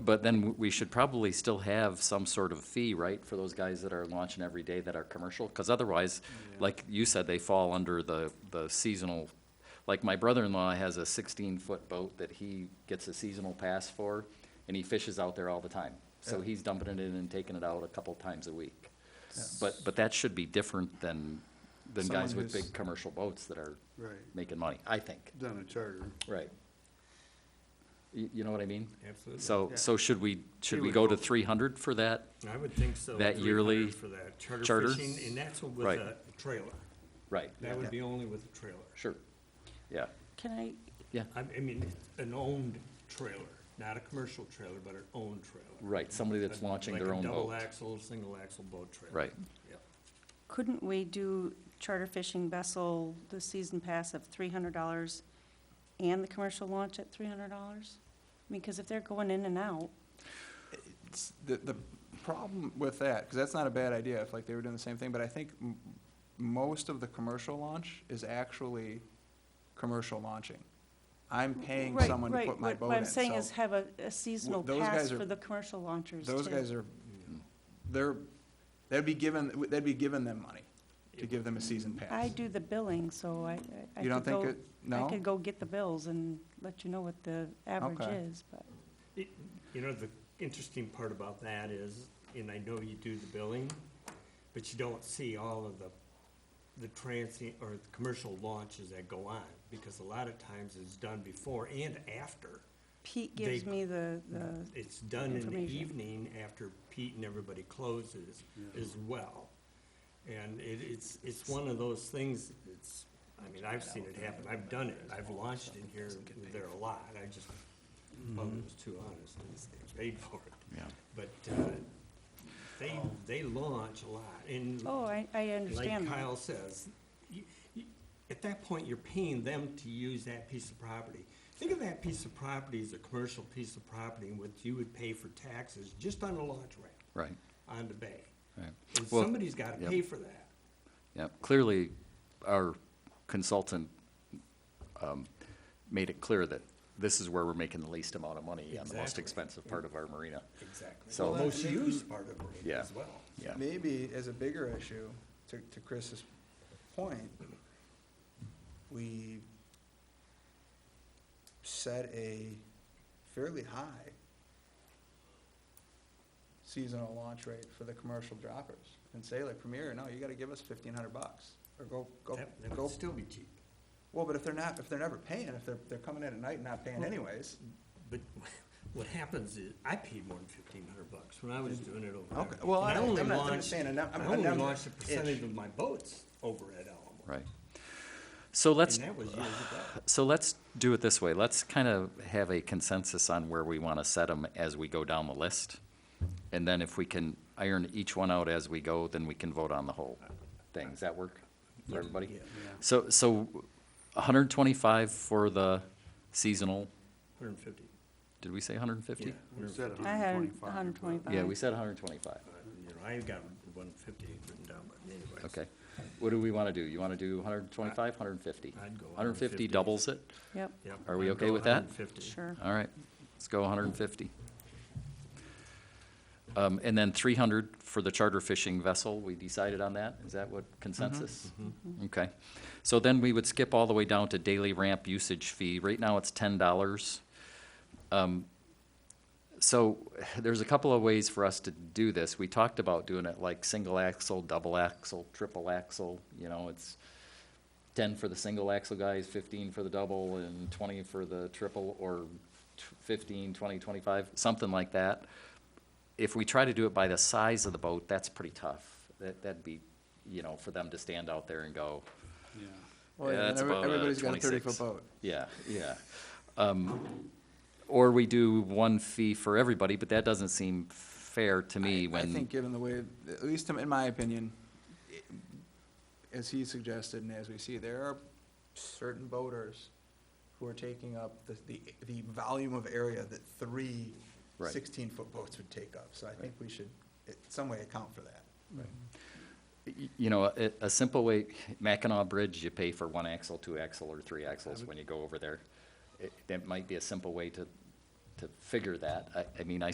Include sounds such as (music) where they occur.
But then w- we should probably still have some sort of fee, right, for those guys that are launching every day that are commercial? Because otherwise, like you said, they fall under the, the seasonal, like my brother-in-law has a sixteen-foot boat that he gets a seasonal pass for, and he fishes out there all the time. So he's dumping it in and taking it out a couple times a week. But, but that should be different than, than guys Someone with who's- big commercial boats that are Right, making money, I think. done a charter. Right. You, you know what I mean? Absolutely. So, Yeah. so should we, should Here we we go go. to three hundred for that? I would think so. That 300 yearly For that charter charter? fishing, and that's with Right. a trailer. Right, That would be only with a trailer. sure, yeah, Can I, yeah, I, I mean, an owned trailer, not a commercial trailer, but an owned trailer. right, somebody that's Like- launching their own Like a double boat. axle, single axle boat trailer. Right. Yep. couldn't we do charter fishing vessel, the season pass of three hundred dollars and the commercial launch at three hundred dollars? I mean, because if they're going in and out, it's- the, the problem with that, because that's not a bad idea, if like they were doing the same thing, but I think m- most of the commercial launch is actually commercial launching. I'm paying Right, someone to right, put my what- boat in. What I'm saying so is have a, a seasonal those pass guys are- for the commercial launchers Those too. guys are, they're, they'd be given, they'd be giving them money to give them a season pass. I do the billing, so I, I- I You don't could think go, it, I no? could go get the bills and let you know what the average Okay. is, but. It- You know, the interesting part about that is, and I know you do the billing, but you don't see all of the, the transient or the commercial launches that go on, because a lot of times it's done before and after. Pete They- gives me the, the, It's done in the Information. evening after Pete and everybody closes as well. And it, it's, it's one of those things, it's, I mean, I've seen it happen, I've done it, I've launched in here, there a lot, I just, well, it was too honest, I just paid for it. Yeah. But, uh, they, they launch a lot, and oh, I, I like understand that. Kyle says, you, you, at that point, you're paying them to use that piece of property. Think of that piece of property as a commercial piece of property in which you would pay for taxes just on the launch ramp Right, on the bay. right, And Well, somebody's gotta yep. pay for that. yeah, clearly, our consultant, um, made it clear that this is where we're making the least amount of money on the most Exactly. expensive part of our marina, Exactly. So- The most used part of it Yeah. as well. yeah. Maybe as a bigger issue, to, to Chris's point, we set a fairly high seasonal launch rate for the commercial droppers and say like Premier, no, you gotta give us fifteen hundred bucks or go, go, That, that go. would still be cheap. Well, but if they're not, if they're never paying, if they're, they're coming in at night and not paying anyways, But (laughs) what happens is, I paid more than fifteen hundred bucks when I was doing it over Okay, there. well, And I- I'm only not- I'm launched- saying a num- I a only number, launched a ish. percentage of my boats over at Alamo. Right. So let's, And that was years ago. so let's do it this way. Let's kind of have a consensus on where we want to set them as we go down the list. And then if we can iron each one out as we go, then we can vote on the whole thing. Does that work for everybody? Yeah. So, so hundred and twenty-five for the seasonal, Hundred and fifty. did we say hundred and fifty? We said I had 125. a hundred twenty-five. Um, Yeah, we said hundred and twenty-five. You know, I got one fifty written down, but anyways. Okay. What do we want to do? You want to do hundred and twenty-five, hundred and fifty? I'd go Hundred and fifty 150. doubles it? Yep, Yep, Are we I'd okay go with that? 150. sure. All right, let's go hundred and fifty. Um, and then three hundred for the charter fishing vessel, we decided on that, is that what consensus? Okay, so then we would skip all the way down to daily ramp usage fee, right now it's ten dollars. Um, so (sighs) there's a couple of ways for us to do this, we talked about doing it like single axle, double axle, triple axle, you know, it's ten for the single axle guys, fifteen for the double, and twenty for the triple, or t- 15, 20, 25, something like that. If we try to do it by the size of the boat, that's pretty tough. That, that'd be, you know, for them to stand out there and go, Yeah. well, Yeah, then that's every- about, uh, everybody's got a thirty 26. foot boat. yeah, yeah. Um, Or we do one fee for everybody, but that doesn't seem fair to me I- I think when, given the way, at least in my opinion, i- as he suggested and as we see, there are certain boaters who are taking up the, the, the volume of area that three Right. sixteen-foot boats would take up. So I think we should, in some way, account for that. y- you know, a, a simple way, Mackinac Bridge, you pay for one axle, two axle, or three axles when you go over there. It- That might be a simple way to, to figure that. I, I mean, I